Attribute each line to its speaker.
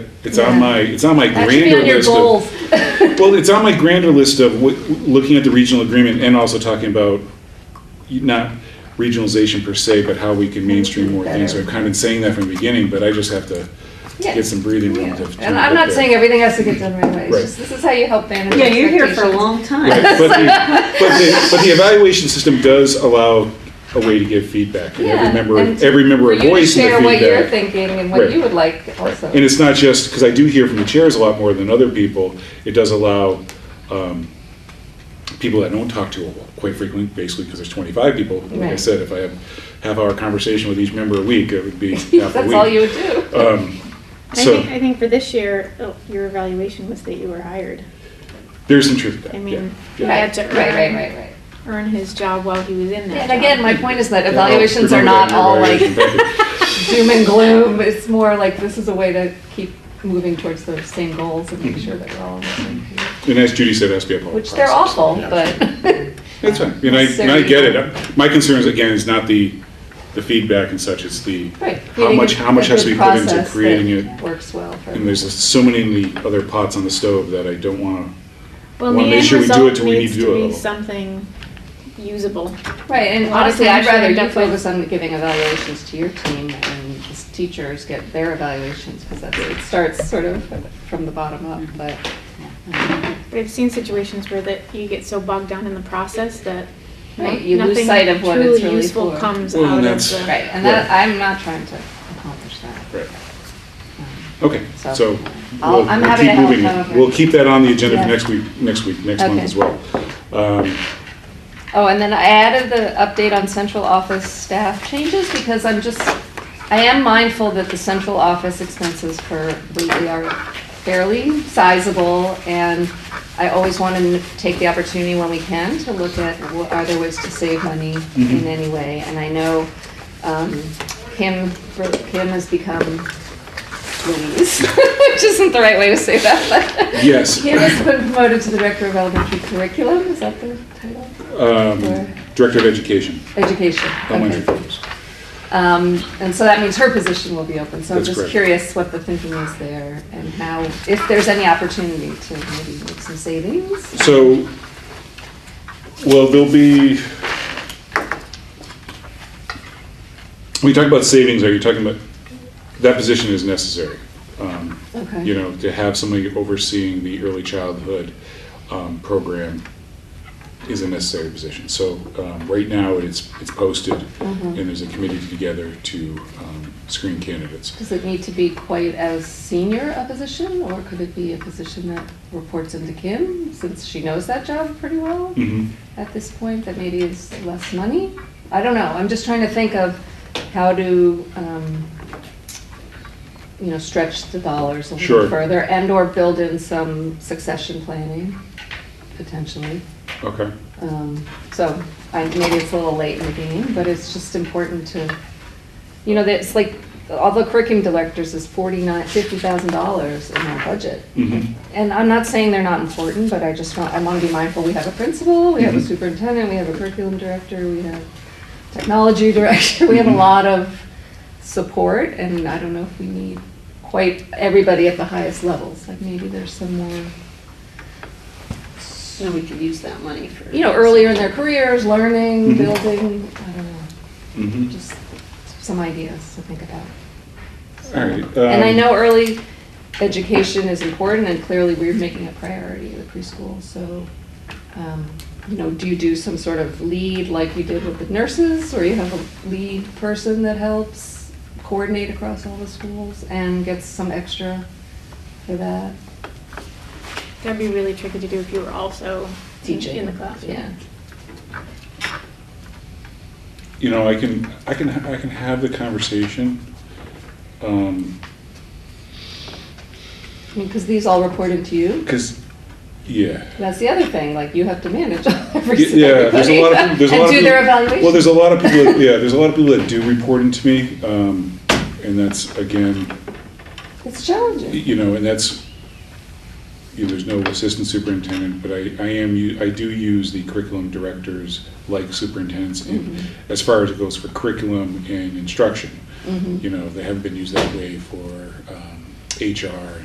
Speaker 1: It's on my, it's on my
Speaker 2: That should be
Speaker 1: grander
Speaker 2: on your
Speaker 1: list of.
Speaker 2: goals.
Speaker 1: Well, it's on my grander list of w- looking at the regional agreement and also talking about not regionalization per se, but how we can mainstream more things. So I'm kind of saying that from the beginning, but I just have to get some breathing room to. to
Speaker 2: And I'm not
Speaker 1: get there.
Speaker 2: saying everything has to get done right away,
Speaker 1: Right.
Speaker 2: it's just, this is how you help manage
Speaker 3: Yeah, you're here for a
Speaker 2: expectations.
Speaker 3: long
Speaker 1: Right,
Speaker 3: time.
Speaker 1: but the, but the, but the evaluation system does allow a way to give feedback, and
Speaker 2: Yeah,
Speaker 1: every member,
Speaker 2: and
Speaker 1: every member a
Speaker 2: For you to
Speaker 1: voice in the
Speaker 2: share
Speaker 1: feedback.
Speaker 2: what you're thinking and what
Speaker 1: Right.
Speaker 2: you would like also.
Speaker 1: And it's not just, because I do hear from the chairs a lot more than other people, it does allow um, people that I don't talk to quite frequently, basically because there's 25 people. Like I
Speaker 2: Right.
Speaker 1: said, if I have half-hour conversation with each member a week, it would be half a week.
Speaker 2: That's all you would do.
Speaker 1: Um,
Speaker 4: I
Speaker 1: So
Speaker 4: think, I think for this year, oh, your evaluation was that you were hired.
Speaker 1: there's some truth to that,
Speaker 4: I
Speaker 1: yeah.
Speaker 4: mean,
Speaker 1: yeah.
Speaker 4: he
Speaker 2: Right,
Speaker 4: had to
Speaker 2: right, right,
Speaker 4: earn,
Speaker 2: right, right.
Speaker 4: earn his job while he was in that
Speaker 2: And again,
Speaker 4: job.
Speaker 2: my point is that
Speaker 1: Yeah, I'll
Speaker 2: evaluations are
Speaker 1: remember
Speaker 2: not
Speaker 1: that
Speaker 2: all
Speaker 1: evaluation,
Speaker 2: like
Speaker 1: thank you.
Speaker 2: doom and gloom, it's more like this is a way to keep moving towards those same goals and make
Speaker 1: Mm-hmm.
Speaker 2: sure that we're all on the same page.
Speaker 1: And as Judy said, it has to be a public
Speaker 2: Which they're
Speaker 1: process.
Speaker 2: awful,
Speaker 1: Yeah.
Speaker 2: but.
Speaker 1: That's fine, and I, and I get it. My concern is, again, is not the, the feedback and such, it's the,
Speaker 2: Right.
Speaker 1: how much, how much has to be put
Speaker 2: creating a- a
Speaker 1: into
Speaker 2: good
Speaker 1: creating
Speaker 2: process
Speaker 1: it.
Speaker 2: that Works well for.
Speaker 1: And there's so many in the other pots on the stove that I don't want
Speaker 4: Well,
Speaker 1: Wanna
Speaker 4: the
Speaker 1: make
Speaker 4: end
Speaker 1: sure we do it
Speaker 4: result
Speaker 1: till we need
Speaker 4: needs
Speaker 1: to do
Speaker 4: to
Speaker 1: it
Speaker 4: be
Speaker 1: all.
Speaker 4: something usable.
Speaker 2: Right, and
Speaker 4: Well, I
Speaker 2: honestly,
Speaker 4: can
Speaker 2: I'd rather
Speaker 4: actually
Speaker 2: you
Speaker 4: end up
Speaker 2: focus on giving evaluations to your team and the teachers get their evaluations, because that's, it starts sort of from the bottom up, but.
Speaker 4: But I've seen situations where that you get so bogged down in the process that
Speaker 2: Right,
Speaker 4: no-
Speaker 2: you lose
Speaker 4: nothing
Speaker 2: sight of what it's
Speaker 4: truly
Speaker 2: really
Speaker 4: useful
Speaker 2: for.
Speaker 4: comes
Speaker 1: Well,
Speaker 4: out of
Speaker 1: that's-
Speaker 4: the.
Speaker 2: Right, and that, I'm not trying to accomplish that.
Speaker 1: to. Right. Okay,
Speaker 2: So,
Speaker 1: so.
Speaker 2: I'll-
Speaker 1: we'll-
Speaker 2: I'm
Speaker 1: we'll
Speaker 2: happy
Speaker 1: keep
Speaker 2: to help
Speaker 1: moving.
Speaker 2: however.
Speaker 1: We'll keep that on the agenda for
Speaker 2: Yeah.
Speaker 1: next week, next week, next month
Speaker 2: Okay.
Speaker 1: as well. Um,
Speaker 2: Oh, and then I added the update on central office staff changes because I'm just, I am mindful that the central office expenses for Whately are fairly sizable, and I always want to take the opportunity when we can to look at, wha- are there ways to save money in
Speaker 1: Mhm.
Speaker 2: any way? And I know um, Kim, Kim has become Louise, which isn't the right way to say that, but.
Speaker 1: Yes.
Speaker 2: Kim has been promoted to the Director of Elementary Curriculum, is that the title?
Speaker 1: um,
Speaker 2: Where?
Speaker 1: Director of Education,
Speaker 2: Education.
Speaker 1: elementary
Speaker 2: okay.
Speaker 1: folks.
Speaker 2: Um, And so that means her position will be open, so I'm
Speaker 1: That's
Speaker 2: just
Speaker 1: correct.
Speaker 2: curious what the thinking is there and how, if there's any opportunity to maybe make some savings.
Speaker 1: So, well, there'll be, when you talk about savings, are you talking about, that position is necessary. um,
Speaker 2: Okay.
Speaker 1: You know, to have somebody overseeing the early childhood um, program is a necessary position. So um, right now, it's, it's posted, and
Speaker 2: Mhm.
Speaker 1: there's a committee together to um, screen candidates.
Speaker 2: Does it need to be quite as senior a position, or could it be a position that reports into Kim, since she knows that job pretty well?
Speaker 1: Mhm.
Speaker 2: at this point that maybe is less money? I don't know, I'm just trying to think of how to, um, you know, stretch the dollars a
Speaker 1: Sure.
Speaker 2: little further and/or build in some succession planning, potentially.
Speaker 1: Okay.
Speaker 2: Um, So I, maybe it's a little late in the game, but it's just important to, you know, that's like, all the curriculum directors is forty-nine, fifty thousand dollars in our budget.
Speaker 1: Mhm.
Speaker 2: And I'm not saying they're not important, but I just want, I want to be mindful, we have a principal, we have a
Speaker 1: Mhm.
Speaker 2: superintendent, we have a curriculum director, we have technology director, we have a lot of support, and I don't know if we need quite everybody at the highest levels, like maybe there's some more,
Speaker 3: So we could use that money for.
Speaker 2: you know, earlier in their careers, learning,
Speaker 1: Mhm.
Speaker 2: building, I don't know,
Speaker 1: Mhm.
Speaker 2: just some ideas to think about.
Speaker 1: All right.
Speaker 2: And I
Speaker 1: um,
Speaker 2: know early education is important, and clearly we're making a priority of the preschool, so, um, you know, do you do some sort of lead like you did with the nurses, or you have a lead person that helps coordinate across all the schools and gets some extra for that?
Speaker 4: that'd be really tricky to do if you were also in-
Speaker 2: Teaching.
Speaker 4: in the classroom.
Speaker 2: Yeah.
Speaker 1: you know, I can, I can, I can have the conversation. Um,
Speaker 2: I mean, because these all report into you.
Speaker 1: cause, yeah.
Speaker 2: That's the other thing, like, you have to manage every
Speaker 1: Yeah, there's a lot of, peop- there's a lot of.
Speaker 2: And do their
Speaker 1: peop-
Speaker 2: evaluation.
Speaker 1: Well, there's a lot of people, that- yeah, there's a lot of people that do report into me, um, and that's, again,
Speaker 2: It's challenging.
Speaker 1: you know, and that's, you know, there's no assistant superintendent, but I, I am, u- I do use the curriculum directors like superintendents in, as far as it goes for curriculum and instruction.
Speaker 2: Mhm.
Speaker 1: You know, they haven't been used that way for um, HR